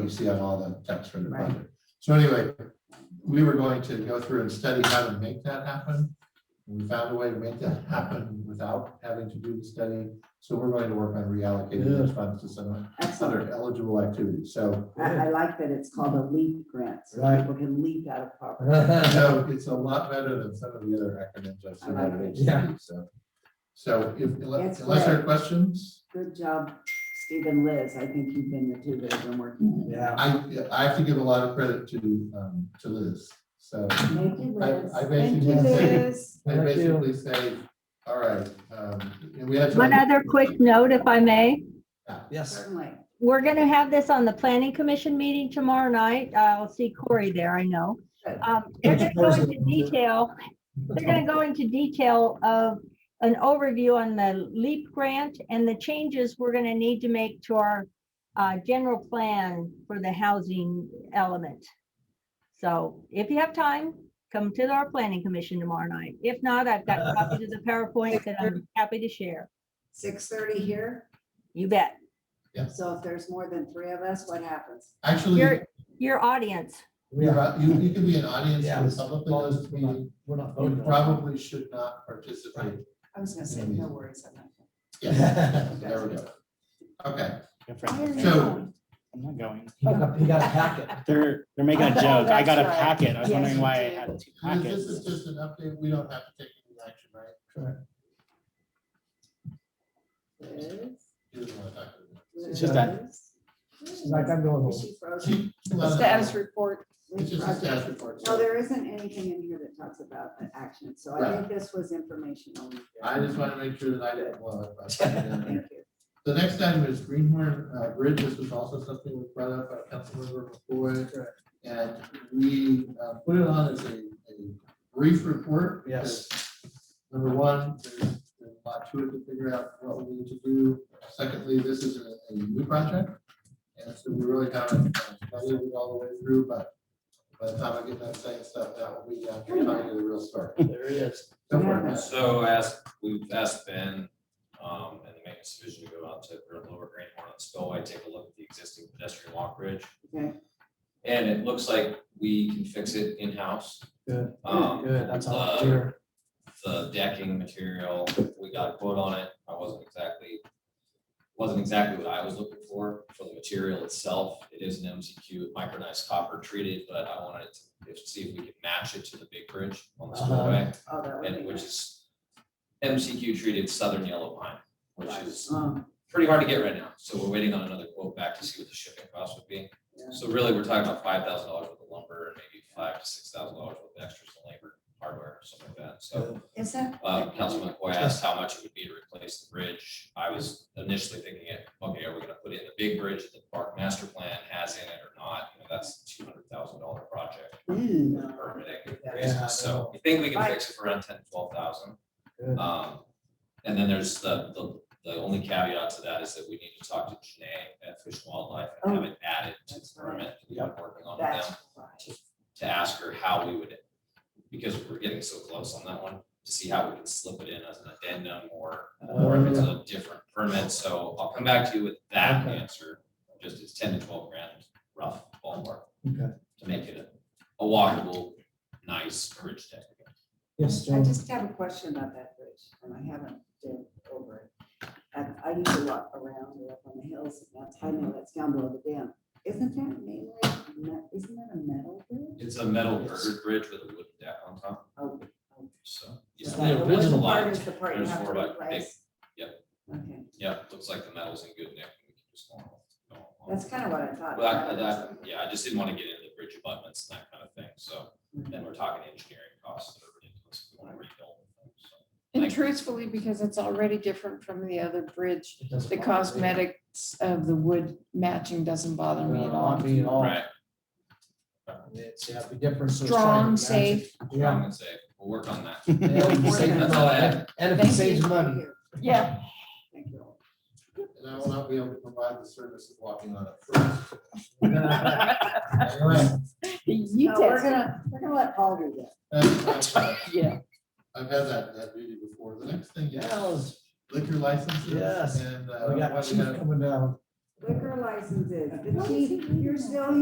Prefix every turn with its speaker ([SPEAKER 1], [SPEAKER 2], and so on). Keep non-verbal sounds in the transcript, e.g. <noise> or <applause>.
[SPEAKER 1] we see on all the texts for the
[SPEAKER 2] Right.
[SPEAKER 1] budget. So anyway, we were going to go through and study how to make that happen. We found a way to make that happen without having to do the study. So we're going to work on reallocating those funds to some
[SPEAKER 2] Excellent.
[SPEAKER 1] other eligible activities. So,
[SPEAKER 2] I, I like that it's called a leap grant, so
[SPEAKER 3] Right. Uh-huh.
[SPEAKER 2] people can leap out of
[SPEAKER 3] <laughs>
[SPEAKER 2] poverty.
[SPEAKER 1] so it's a lot better than some of the other acronyms I've seen out of
[SPEAKER 3] Yeah.
[SPEAKER 1] HCD, so. So if,
[SPEAKER 2] That's
[SPEAKER 1] unless unless there are questions?
[SPEAKER 2] Good job, Steve and Liz. I think you've been the two that have been working.
[SPEAKER 3] Yeah.
[SPEAKER 1] I, I have to give a lot of credit to, um, to Liz, so
[SPEAKER 2] Thank you,
[SPEAKER 1] I-
[SPEAKER 2] Liz.
[SPEAKER 1] I
[SPEAKER 2] Thank you,
[SPEAKER 1] basically said-
[SPEAKER 2] Liz.
[SPEAKER 1] I
[SPEAKER 3] Thank you.
[SPEAKER 1] basically say, all right, um, and we had. to-
[SPEAKER 4] One other quick note, if I may.
[SPEAKER 3] Yes.
[SPEAKER 2] Certainly.
[SPEAKER 4] We're going to have this on the planning commission meeting tomorrow night. Uh, I'll see Corey there, I know. Um, They're going to go into detail, they're going to go into detail of an overview on the LEAP grant and the changes we're going to need to make to our uh, general plan for the housing element. So if you have time, come to our planning commission tomorrow night. If not, I've got copies of the PowerPoint that I'm happy to share.
[SPEAKER 2] Six thirty here.
[SPEAKER 4] You bet.
[SPEAKER 2] So if there's more than three of us, what happens?
[SPEAKER 1] Actually,
[SPEAKER 4] Your, your audience.
[SPEAKER 1] you're out- you, you could be an audience
[SPEAKER 3] Yeah.
[SPEAKER 1] for the public in this meeting,
[SPEAKER 3] We're not voting.
[SPEAKER 1] you probably should not participate.
[SPEAKER 2] I was gonna say, no worries. I'm not-
[SPEAKER 1] Yeah,
[SPEAKER 3] <laughs>
[SPEAKER 1] so there we go. Okay,
[SPEAKER 5] Your friend.
[SPEAKER 1] So-
[SPEAKER 5] I'm not going.
[SPEAKER 3] He got he got a packet.
[SPEAKER 5] They're, they're making a joke. I got a
[SPEAKER 2] That's right.
[SPEAKER 5] packet. I was
[SPEAKER 2] Yes,
[SPEAKER 5] wondering
[SPEAKER 2] you
[SPEAKER 5] why I
[SPEAKER 2] did.
[SPEAKER 5] had two
[SPEAKER 1] Liz, this is
[SPEAKER 5] packets.
[SPEAKER 1] just an update, we don't have to take any action, right?
[SPEAKER 2] Liz,
[SPEAKER 1] You just wanna talk to
[SPEAKER 2] Liz.
[SPEAKER 5] It's just that-
[SPEAKER 3] She's like, I'm going
[SPEAKER 2] Is
[SPEAKER 3] home.
[SPEAKER 2] she frozen?
[SPEAKER 1] them.
[SPEAKER 6] Status report.
[SPEAKER 1] It's just a status report.
[SPEAKER 2] No, there isn't anything in here that talks about the action, so I think this was informational.
[SPEAKER 1] I just wanna make sure that I didn't blow it. but-
[SPEAKER 2] Thank you.
[SPEAKER 1] The next item is Greenhorn uh, Bridge. This was also something we brought up by Councilmember McCoy. And we uh, put it on as a a brief report.
[SPEAKER 3] Yes.
[SPEAKER 1] because, Number one, there's there's a lot to it to figure out what we need to do. Secondly, this is a a new project. And so we really haven't studied it all the way through, but by the time I get that same stuff, that will be after talking to the real
[SPEAKER 3] <laughs>
[SPEAKER 1] story.
[SPEAKER 3] There he is.
[SPEAKER 1] Don't worry about it.
[SPEAKER 7] So ask, we've asked Ben, um, and the maintenance division to go out to Great Lower Grand Horn and Spillway, take a look at the existing pedestrian walk bridge.
[SPEAKER 2] Okay.
[SPEAKER 7] And it looks like we can fix it in-house.
[SPEAKER 3] Good.
[SPEAKER 7] Um,
[SPEAKER 3] Good, that's all
[SPEAKER 7] uh,
[SPEAKER 3] clear.
[SPEAKER 7] the decking material, we got a quote on it, I wasn't exactly, wasn't exactly what I was looking for, for the material itself, it is an MCQ micronized copper treated, but I wanted to see if we could match it to the big bridge on the
[SPEAKER 3] Uh-huh.
[SPEAKER 7] spillway
[SPEAKER 2] Oh, that would be
[SPEAKER 7] and which
[SPEAKER 2] nice.
[SPEAKER 7] is MCQ treated southern yellow pine, which
[SPEAKER 2] Right.
[SPEAKER 7] is
[SPEAKER 2] Um,
[SPEAKER 7] pretty hard to get right now. So we're waiting on another quote back to see what the shipping cost would be.
[SPEAKER 2] yeah.
[SPEAKER 7] So really, we're talking about five thousand dollars worth of lumber and maybe five to six thousand dollars worth of extras in labor, hardware, something like that. So
[SPEAKER 2] Is that?
[SPEAKER 7] uh, Councilman McCoy asked how much it would be to replace the bridge. I was initially thinking, okay, are we gonna put in the big bridge that the park master plan has in it or not? You know, that's two hundred thousand dollar project
[SPEAKER 2] Mm,
[SPEAKER 7] for
[SPEAKER 2] no.
[SPEAKER 7] permitting
[SPEAKER 2] Yeah.
[SPEAKER 7] reasons. So I think we can fix it for around ten, twelve thousand.
[SPEAKER 3] Good.
[SPEAKER 7] Um, and then there's the, the, the only caveat to that is that we need to talk to Janae at Fish and Wildlife and have it added to the permit. We are working on with
[SPEAKER 2] Oh. That's
[SPEAKER 7] them
[SPEAKER 2] right.
[SPEAKER 7] to ask her how we would, because we're getting so close on that one, to see how we can slip it in as an addendum or, or if it's a different permit. So I'll come back to you with that
[SPEAKER 3] Okay.
[SPEAKER 7] answer, just it's ten to twelve grand, rough ballpark,
[SPEAKER 3] Okay.
[SPEAKER 7] to make it a, a walkable, nice bridge deck.
[SPEAKER 3] Yes,
[SPEAKER 2] I
[SPEAKER 3] Joe.
[SPEAKER 2] just have a question about that bridge, and I haven't been over it. And I used to walk around or up on the hills, and that's, I know that's down below the dam. Isn't that mainly, me- isn't that a metal bridge?
[SPEAKER 7] It's a metal girder bridge with a wooden deck on top,
[SPEAKER 2] Oh,
[SPEAKER 7] so.
[SPEAKER 2] is
[SPEAKER 7] yeah,
[SPEAKER 2] that the
[SPEAKER 7] there's a
[SPEAKER 2] wooden
[SPEAKER 7] lot.
[SPEAKER 2] part is the part you
[SPEAKER 7] There's
[SPEAKER 2] have to
[SPEAKER 7] more about big-
[SPEAKER 2] replace?
[SPEAKER 7] yep.
[SPEAKER 2] Okay,
[SPEAKER 7] Yeah, looks like the metal's in good nick. We can just go on.
[SPEAKER 2] that's kind of what I thought.
[SPEAKER 7] But I, that, yeah, I just didn't want to get into the bridge abutments and that kind of thing, so then we're talking engineering costs that are ridiculous. if We want to rebuild them, so.
[SPEAKER 6] And truthfully, because it's already different from the other bridge,
[SPEAKER 3] It doesn't
[SPEAKER 6] the
[SPEAKER 3] bother me.
[SPEAKER 6] cosmetics of the wood matching doesn't bother me at
[SPEAKER 3] Not
[SPEAKER 6] all.
[SPEAKER 3] me at all.
[SPEAKER 7] Right,
[SPEAKER 3] It's, yeah, the difference. is trying
[SPEAKER 6] Strong,
[SPEAKER 3] to match
[SPEAKER 6] safe.
[SPEAKER 3] it. <laughs>
[SPEAKER 7] I'm gonna say, we'll work on that.
[SPEAKER 3] Yeah. And it saves
[SPEAKER 7] That's all I
[SPEAKER 3] money.
[SPEAKER 7] have.
[SPEAKER 3] And if it
[SPEAKER 6] Thank
[SPEAKER 3] saves money.
[SPEAKER 6] Yeah.
[SPEAKER 2] Thank you.
[SPEAKER 1] And I will not be able to provide the service of walking on it first. Anyway,
[SPEAKER 6] You
[SPEAKER 2] No, we're
[SPEAKER 6] test.
[SPEAKER 2] gonna, we're gonna let Paul do that.
[SPEAKER 3] <laughs>
[SPEAKER 1] that's-
[SPEAKER 6] Yeah.
[SPEAKER 1] uh, I've had that, that duty before. The next thing, yeah,
[SPEAKER 3] Yes,
[SPEAKER 1] liquor licenses.
[SPEAKER 3] Yes.
[SPEAKER 1] And. uh,
[SPEAKER 3] we
[SPEAKER 1] why
[SPEAKER 3] got
[SPEAKER 1] we
[SPEAKER 3] chief
[SPEAKER 1] had-
[SPEAKER 3] coming down.
[SPEAKER 2] liquor licenses, the chief, you're still